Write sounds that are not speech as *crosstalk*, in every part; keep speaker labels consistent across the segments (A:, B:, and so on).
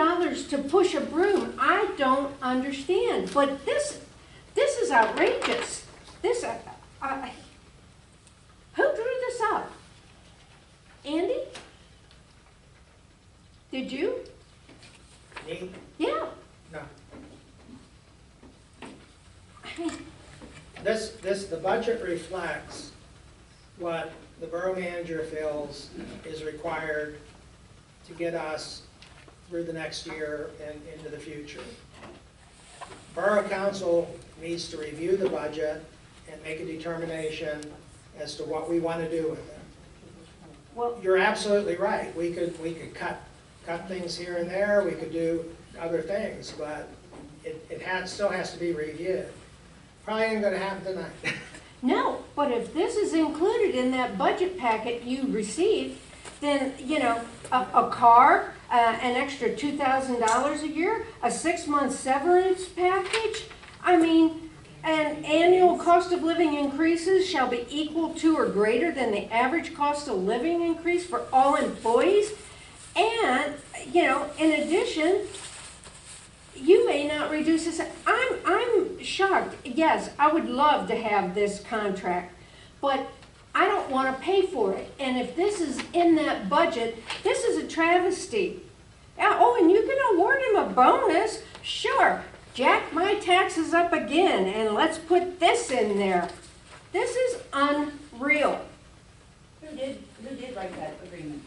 A: years to push a broom, I don't understand. But this, this is outrageous. This, I, I, who drew this up? Andy? Did you?
B: Me?
A: Yeah. *laughs*
B: No.
A: I mean,
B: This, this, the budget reflects what the borough manager feels is required to get us through the next year and into the future. Borough council needs to review the budget and make a determination as to what we want to do with it.
A: Well,
B: You're absolutely right. We could, we could cut, cut things here and there, we could do other things, but it, it has, still has to be reviewed. Probably ain't gonna happen tonight.
A: no, but if this is included in that budget packet you received, then, you know, a, a car, uh, an extra two thousand dollars a year, a six-month severance package, I mean, an annual cost of living increases shall be equal to or greater than the average cost of living increase for all employees. And, you know, in addition, you may not reduce this, I'm, I'm shocked. Yes, I would love to have this contract, but I don't want to pay for it. And if this is in that budget, this is a travesty. Yeah, Oh, and you can award him a bonus, sure. Jack my taxes up again and let's put this in there. This is unreal. *laughs*
C: Who did, who did write that agreement?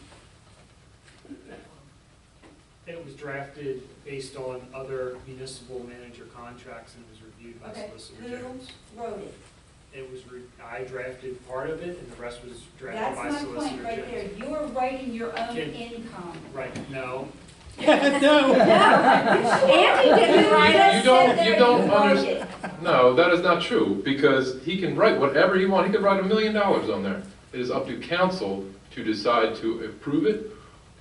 D: It was drafted based on other municipal manager contracts and was reviewed by
C: Okay,
D: Solicitor General.
C: who wrote it?
D: It was, re- I drafted part of it and the rest was drafted
C: That's
D: by
C: my
D: Solicitor
C: point right
D: General.
C: there. You're writing your own
D: Kid.
C: income.
D: Right, no,
A: No, *laughs* Andy didn't write it.
C: Just
E: don't-
C: sit there
E: you
C: and
E: don't
C: write
E: under-
C: it.
E: No, that is not true, because he can write whatever he wants, he could write a million dollars on there. It is up to council to decide to approve it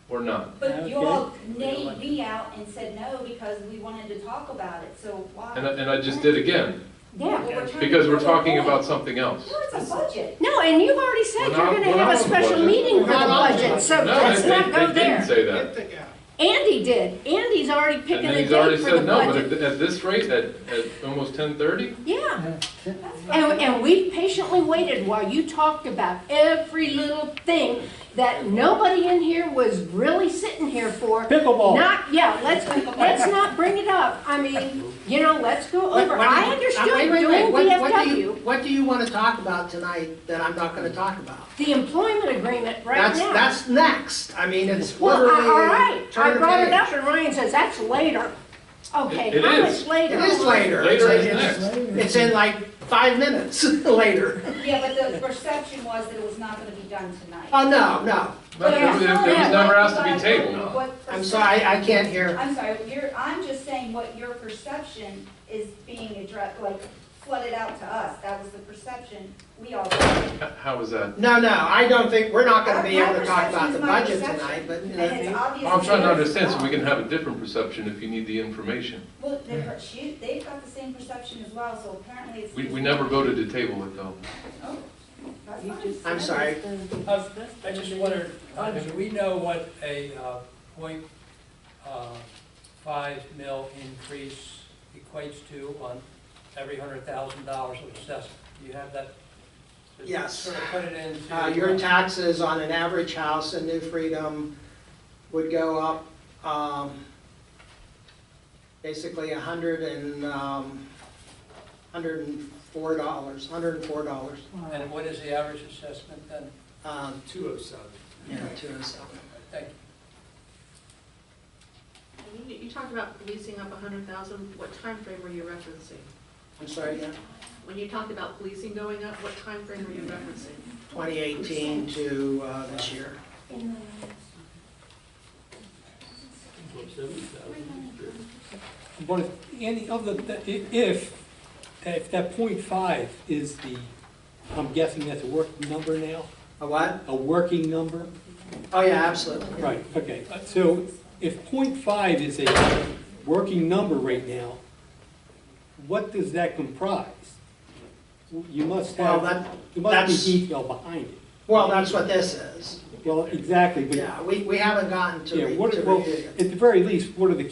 E: or not.
C: But you all named me out and said no because we wanted to talk about it, so why?
E: And I, and I just did again,
A: Yeah,
C: Well, we're trying to
E: because we're
C: cover
E: talking
C: all.
E: about something else.
C: No, it's a budget.
A: No, and you've already said
E: We're
A: you're
E: not-
A: gonna
E: we're
A: have a
E: not on the
A: special
E: budget.
A: meeting
B: We're
A: for the
B: not on the
A: budget, so
B: budget.
E: No,
A: let's
E: they,
A: not
E: they-
A: go
E: they didn't
A: there.
E: say
B: *laughs* Get
E: that.
B: the- yeah.
A: Andy did, Andy's already
E: And
A: picking
E: then
A: a
E: he's already
A: date for the
E: said no, but
A: budget.
E: at, at this rate, at, at almost ten thirty,
A: Yeah,
C: That's
A: and,
C: fine.
A: and we patiently waited while you talked about every little thing that nobody in here was really sitting here for.
F: Pickleball.
A: Not, yeah, let's, let's not bring it up, I mean, you know, let's go
B: What-
A: over,
B: what do you-
A: I understood
B: uh, wait, wait, wait.
A: doing
B: What- what do you-
A: VFW,
B: What do you wanna talk about tonight that I'm not gonna talk about?
A: the employment agreement right
B: That's,
A: now.
B: that's next. I mean, it's
A: Well,
B: literally.
A: I- all right,
B: turn
A: I
B: the
A: brought it
B: page.
A: up, and Ryan says, that's later. Okay,
E: It- it
A: how
E: is.
A: much later?
B: It is later. It's-
E: Later is
B: it's-
E: next.
B: It's in like five minutes *laughs* later.
C: Yeah, but the perception was that it was not gonna be done tonight.
B: Oh, no, no.
E: but it
A: Yeah.
E: was it was never asked to be
C: But
E: tabled.
C: what
B: I'm sorry, I can't hear.
C: I'm sorry, you're, I'm just saying what your perception is being addressed, like flooded out to us. That was the perception we all. had.
E: H- How was that?
B: No, no, I don't think, we're not gonna be
C: My
B: able to talk about
C: perception is
B: the
C: my
B: budget
C: perception,
B: tonight, but, you know what I
C: And it's
B: mean?
C: obvious.
E: I'm trying to
C: that
E: understand, so
C: it's
E: we can
C: wrong.
E: have a different perception if you need the information.
C: Well, they've, she, they've got the same perception as well, so apparently it's.
E: We, we never voted to table it though.
C: Oh, that's fine.
B: I'm sorry.
G: I just wondered, uh, do we know what a uh, point uh, five mil increase equates to on every hundred thousand dollars of assessment? Do you have that?
B: Yes.
G: Sort of put it into.
B: Uh, your taxes on an average house in New Freedom would go up, um, basically a hundred and, um, hundred and four dollars, hundred and four dollars,
G: And what is the average assessment then?
B: um,
D: two oh seven.
B: you know, to us.
G: Thank you.
H: And You you talked about policing up a hundred thousand, what time frame were you referencing?
B: I'm sorry, yeah,
H: When you talked about policing going up, what time frame were you referencing?
B: twenty eighteen to, uh, this year.
F: But any of the, the- i- if, if that point five is the, I'm guessing that's a working number now,
B: A what?
F: a working number?
B: Oh, yeah, absolutely.
F: Right, okay, Uh, so if point five is a working number right now, what does that comprise? You must
B: Well,
F: have,
B: that,
F: there must
B: that's-
F: be detail behind it.
B: well, that's what this is.
F: Well, exactly, but,
B: Yeah, we, we haven't gotten to
F: yeah,
B: re-
F: what,
B: to
F: well,
B: review it.
F: at the very least, what are the